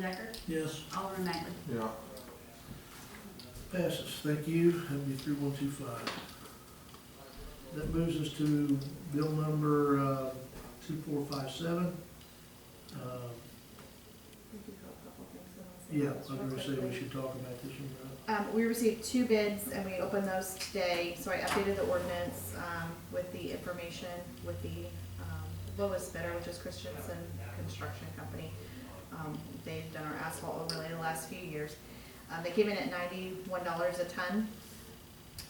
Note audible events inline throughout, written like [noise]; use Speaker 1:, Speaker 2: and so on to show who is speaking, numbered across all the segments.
Speaker 1: Decker,
Speaker 2: Yes.
Speaker 1: Alderman Magley.
Speaker 3: Yeah.
Speaker 2: Passes, thank you, MB three one two five. That moves us to bill number, uh, two four five seven. Uh, Yeah, I was gonna say we should talk about this one, uh, right?
Speaker 4: Um, we received two bids and we opened those today, so I updated the ordinance, um, with the information, with the, um, lowest bidder, which is Christensen Construction Company. Um, they've done our asphalt overlay the last few years. Um, they came in at ninety-one dollars a ton,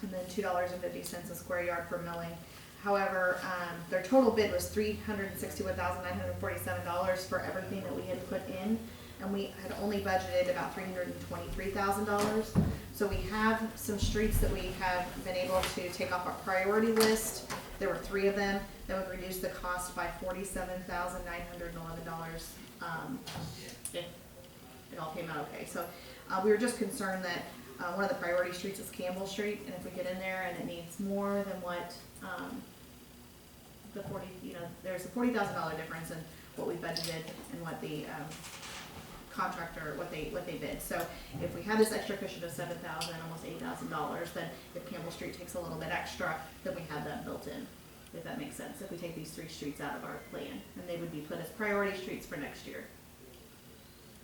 Speaker 4: and then two dollars and fifty cents a square yard for milling. However, um, their total bid was three hundred and sixty-one thousand nine hundred and forty-seven dollars for everything that we had put in, and we had only budgeted about three hundred and twenty-three thousand dollars. So we have some streets that we have been able to take off our priority list. There were three of them that would reduce the cost by forty-seven thousand nine hundred and eleven dollars. Um, if it all came out okay. So, uh, we were just concerned that, uh, one of the priority streets is Campbell Street, and if we get in there and it needs more than what, um, the forty, you know, there's a forty thousand dollar difference in what we budgeted and what the, um, contractor, what they, what they bid. So if we had this extra cushion of seven thousand, almost eight thousand dollars, then if Campbell Street takes a little bit extra, then we have that built in, if that makes sense, if we take these three streets out of our plan, and they would be put as priority streets for next year.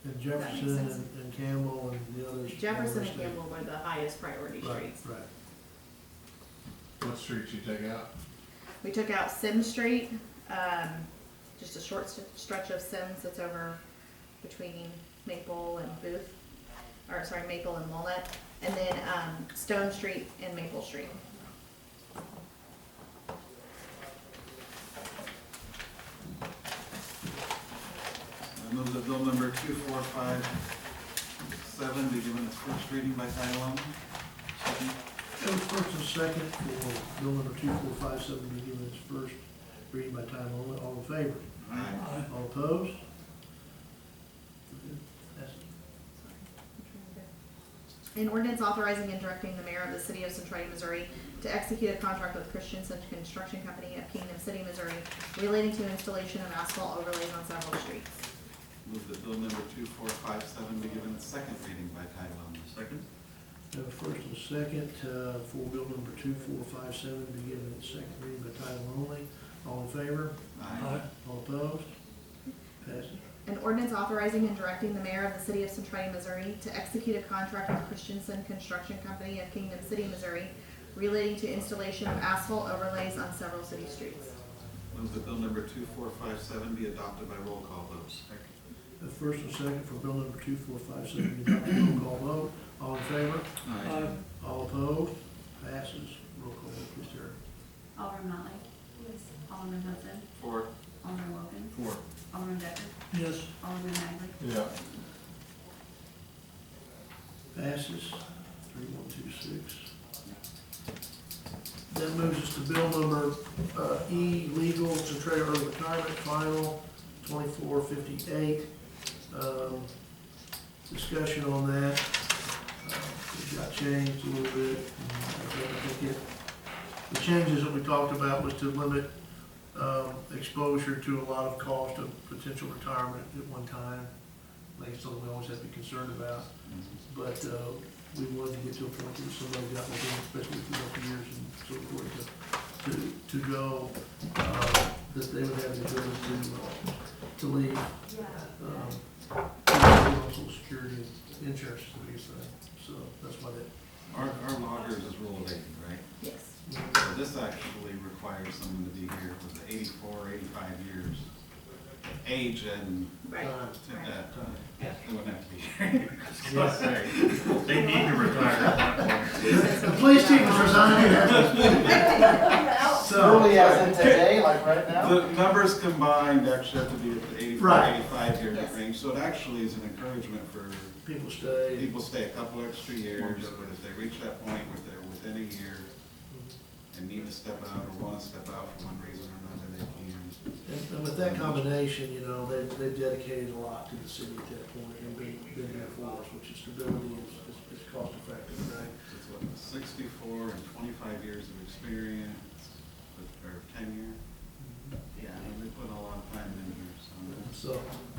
Speaker 2: And
Speaker 4: makes
Speaker 2: Jefferson
Speaker 4: sense.
Speaker 2: and and Campbell and the others.
Speaker 4: Jefferson and Campbell were the highest priority
Speaker 2: Right,
Speaker 4: streets.
Speaker 2: right.
Speaker 3: What streets you take out?
Speaker 4: We took out Sims Street, um, just a short st- stretch of Sims that's over between Maple and Booth, or sorry, Maple and Walnut, and then, um, Stone Street and Maple Street.
Speaker 5: I move that bill number two four five seven be given its first reading by title only. Second.
Speaker 2: So first and second for bill number two four five seven be given its first reading by title only, all in favor?
Speaker 5: Aye.
Speaker 2: All opposed? Passes.
Speaker 4: An ordinance authorizing and directing the mayor of the city of Centralia, Missouri to execute a contract with Christensen Construction Company of Kingdom City, Missouri relating to installation of asphalt overlays on several streets.
Speaker 5: Move that bill number two four five seven be given its second reading by title only. Second.
Speaker 2: Have a first and second uh, for bill number two four five seven be given its second reading by title only. All in favor?
Speaker 5: Aye.
Speaker 2: All opposed? Passes.
Speaker 4: An ordinance authorizing and directing the mayor of the city of Centralia, Missouri to execute a contract with Christensen Construction Company of Kingdom City, Missouri relating to installation of asphalt overlays on several city streets.
Speaker 5: Move that bill number two four five seven be adopted by roll call vote. Second.
Speaker 2: Have a first and second for bill number two four five seven be adopted. Roll call vote. All in favor?
Speaker 5: Aye.
Speaker 2: All opposed? Passes. Roll call vote, please, Terry.
Speaker 1: Alderman Motley. Yes. Alderman Hudson.
Speaker 5: Four.
Speaker 1: Alderman Wilkins.
Speaker 5: Four.
Speaker 1: Alderman Decker.
Speaker 2: Yes.
Speaker 1: Alderman Magley.
Speaker 3: [laughs] Yeah.
Speaker 2: Passes, three, one, two, six. That moves us to bill number, uh, E, legal to trailer retirement final, twenty-four fifty-eight. Um, discussion on that, uh, it got changed a little bit. I think it- The changes that we talked about was to limit, um, exposure to a lot of cost of potential retirement at one time. I think it's something we always have to be concerned about but uh, we wanted to get to a point where somebody got within, especially for the years and so forth, to, to, to go, uh, that they would have the ability to, uh, to leave. um, with Social security and insurance, to be so that's why that,
Speaker 5: Our, our loggers is rule of eighty, right?
Speaker 4: Yes.
Speaker 5: So this actually requires someone to be here for the 84, 85 years age and
Speaker 4: Right.
Speaker 5: uh, that, uh, they wouldn't have to be [laughs] here.
Speaker 6: They need to retire at that point.
Speaker 2: the police chief is resigning. So,
Speaker 7: Early as in today, like right now?
Speaker 5: The numbers combined actually have to be at the 84,
Speaker 2: Right.
Speaker 5: 85 year
Speaker 4: Yes.
Speaker 5: range, so it actually is an encouragement for
Speaker 2: people stay,
Speaker 5: people to stay a couple extra years, but if they reach that point where they're within a year and need to step out or want to step out for one reason or another, they can.
Speaker 2: and and with that combination, you know, they, they've dedicated a lot to the city at that point, and been, been there for us, which is stability is, is- is cost effective, right?
Speaker 5: It's what, 64 and 25 years of experience, with- or tenure? Yeah, and they put a lot of time in here, so.
Speaker 2: So,